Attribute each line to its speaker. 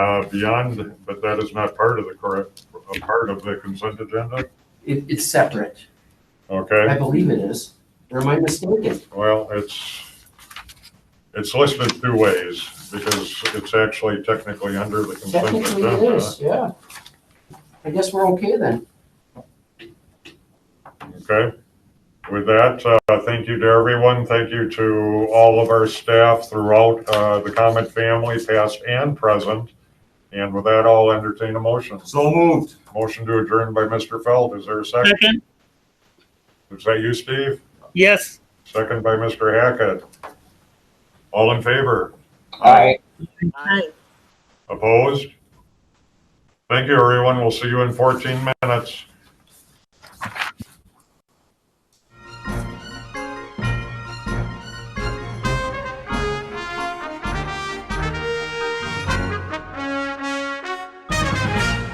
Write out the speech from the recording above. Speaker 1: Uh, beyond, but that is not part of the correct, a part of the consent agenda?
Speaker 2: It, it's separate. I
Speaker 1: Okay,
Speaker 2: believe it is. Or am I mistaken?
Speaker 1: well, it's, it's listed two ways because it's actually technically under the consent
Speaker 2: Technically it
Speaker 1: agenda.
Speaker 2: is, yeah. I guess we're okay then.
Speaker 1: Okay. With that, uh, thank you to everyone. Thank you to all of our staff throughout, uh, the Comet family, past and present. And with that, I'll entertain a motion.
Speaker 3: So moved.
Speaker 1: Motion to adjourn by Mr. Feld. Is there a second?
Speaker 4: Second,
Speaker 1: Is that you, Steve?
Speaker 4: yes.
Speaker 1: Second by Mr. Hackett. All in favor?
Speaker 2: Aye.
Speaker 1: Opposed? Thank you, everyone. We'll see you in 14 minutes.